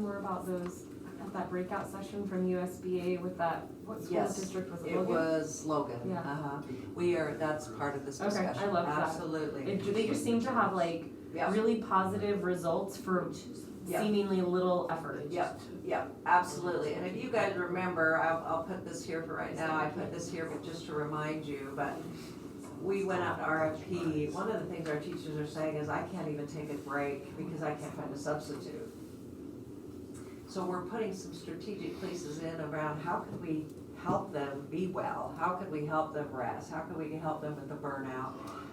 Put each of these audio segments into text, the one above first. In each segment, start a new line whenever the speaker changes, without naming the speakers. More about those, at that breakout session from USBA with that, what school
Yes,
district was it?
It
Logan?
was Logan.
Yeah.
Uh-huh. We are, that's part of this
Okay, I
discussion.
love that.
Absolutely.
It- They just seem to have like
Yeah,
really positive results for
Yeah.
seemingly little effort.
yeah, yeah, absolutely. And if you guys remember, I'll, I'll put this here for right now. I put this here but just to remind you, but we went out to RFP. One of the things our teachers are saying is, I can't even take a break because I can't find a substitute. So we're putting some strategic places in around how can we help them be well? How can we help them rest? How can we help them with the burnout?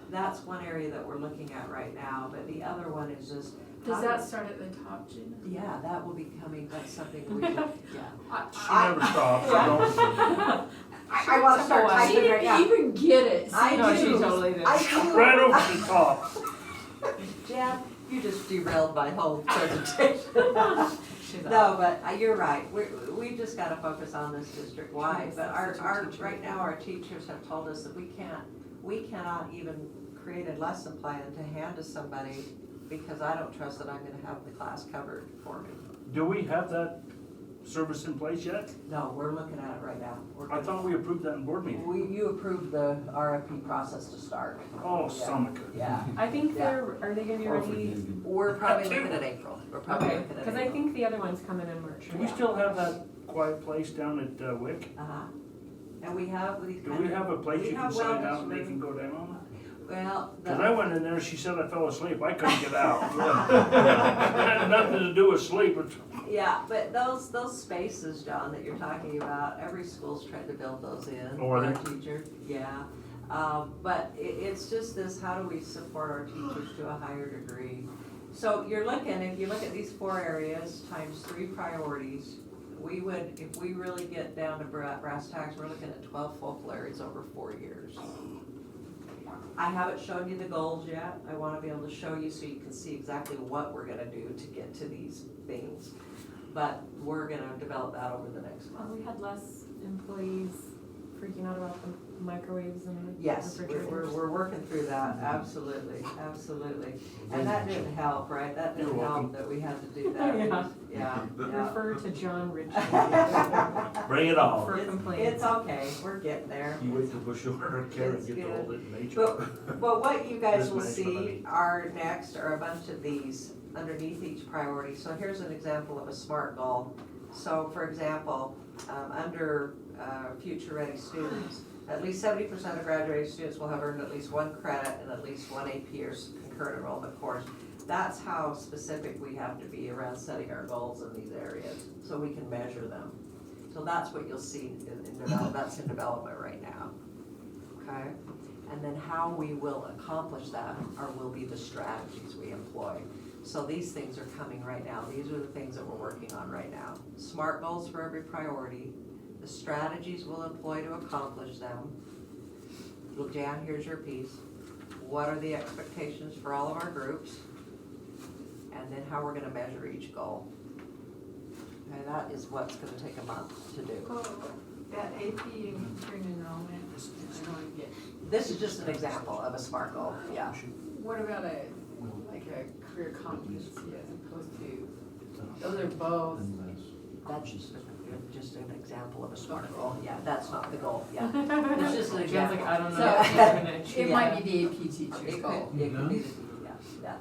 That's one area that we're looking at right now, but the other one is just.
Does
how-
that start at the top, Gina?
Yeah, that will be coming, that's something we, yeah.
She never stops, I don't,
I, I wanna start
She
typing right
didn't
now.
even get it.
I
No, she
do.
totally did.
I do.
right over the top.
Jeff, you just derailed my whole presentation. No, but uh, you're right, we, we've just gotta focus on this district-wide, but our, our, right now, our teachers have told us that we can't, we cannot even create a lesson plan to hand to somebody because I don't trust that I'm gonna have the class covered for me.
Do we have that service in place yet?
No, we're looking at it right now. We're
I
gonna-
thought we approved that in board meeting.
We, you approved the RFP process to start.
Oh, stomach.
Yeah,
I think
Yeah.
they're, are they gonna be ready?
we're probably looking at April, we're probably
Okay,
looking at April.
cause I think the other one's coming in March.
Do we still have that quiet place down at uh, Wick?
Uh-huh. And we have these
Do
kind
we
of,
have a place
We
you can
have
sign
wellness
out and they
room.
can go down on it?
well,
Cause I
the,
went in there, she said I fell asleep, I couldn't get out. Had Nothing to do with sleep, it's,
yeah, but those, those spaces, John, that you're talking about, every school's trying to build those in.
Oh, are
for
they?
our Teacher, yeah. Um, but i it's just this, how do we support our teachers to a higher degree? So you're looking, if you look at these four areas times three priorities, we would, if we really get down to bra- brass tacks, we're looking at twelve full flares over four years. I haven't shown you the goals yet, I wanna be able to show you so you can see exactly what we're gonna do to get to these things. But we're gonna develop that over the next
Uh,
month.
we had less employees freaking out about the microwaves and
Yes,
refrigerators.
we're, we're, we're working through
Mm-hmm.
that, absolutely, absolutely. And that didn't help, right, that didn't
You're
help
welcome.
that we had to do that, yeah, yeah.
Refer to John Ritchie
It's,
bring it on.
for complaints.
it's okay, we're getting there.
You wait till Bush or Karen get to hold it in nature.
But, but what you guys
Risk
will
management, I
see
mean.
are next are a bunch of these underneath each priority. So here's an example of a SMART goal. So for example, um, under, uh, future ready students, at least seventy percent of graduating students will have earned at least one credit and at least one AP or s- concurrent enrollment course. That's how specific we have to be around setting our goals in these areas, so we can measure them. So that's what you'll see in, in develop, that's in development right now. Okay? And then how we will accomplish that are, will be the strategies we employ. So these things are coming right now, these are the things that we're working on right now. SMART goals for every priority, the strategies we'll employ to accomplish them. Look, Jan, here's your piece. What are the expectations for all of our groups? And then how we're gonna measure each goal. And that is what's gonna take a month to do.
Oh, that AP and current enrollment, I don't get.
This is just an example of a SMART goal, yeah.
What about a, like a career competency as opposed to, those are both.
That's just, just an example of a SMART goal, yeah, that's not the goal, yeah. It's just an
John's like,
example.
I don't know.
So-
if I'm gonna achieve
It might be the AP teacher's
It
goal.
could, it could be, yeah, yeah,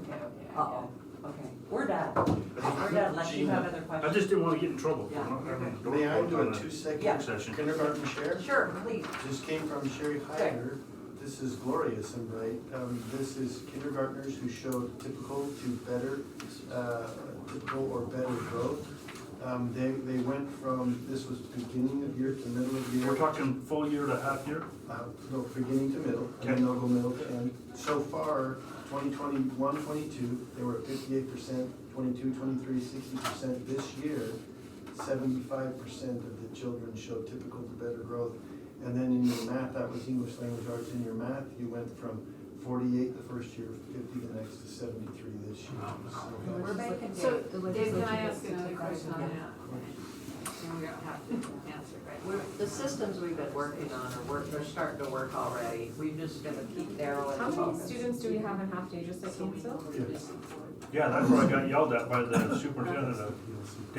Okay, okay, I
uh-oh, okay, we're done, we're done, unless you have other
I
questions.
just didn't wanna get in trouble for
Yeah.
not having a door.
May I do
on
a
Yeah.
two-second
Session.
kindergarten share?
Sure, please,
This came from Sherry Heider. This is glorious and bright. Um, This is kindergartners who showed typical to better, uh, typical or better growth. Um, They, they went from, this was beginning of year to middle of year.
We're talking full year to half year?
Uh, No, beginning to middle, and then they'll go middle to end. So far, 2021, 22, they were at fifty-eight percent, 22, 23, 60 percent. This year, seventy-five percent of the children showed typical to better growth. And then in your math, that was English language arts, in your math, you went from forty-eight the first year, fifty the next, to seventy-three this year. So
we're
that's-
making,
So,
The
Dave, can
legislature
I ask
gets to
another
take that
question on
yeah.
that? and we don't have to answer, right?
We're, the systems we've been working on are work, they're starting to work already. We've just gonna keep narrowing
How
the
many
focus.
students do we have in half day, just at Kingsville?
Yes.
Yeah, that's where I got yelled at by the superintendent of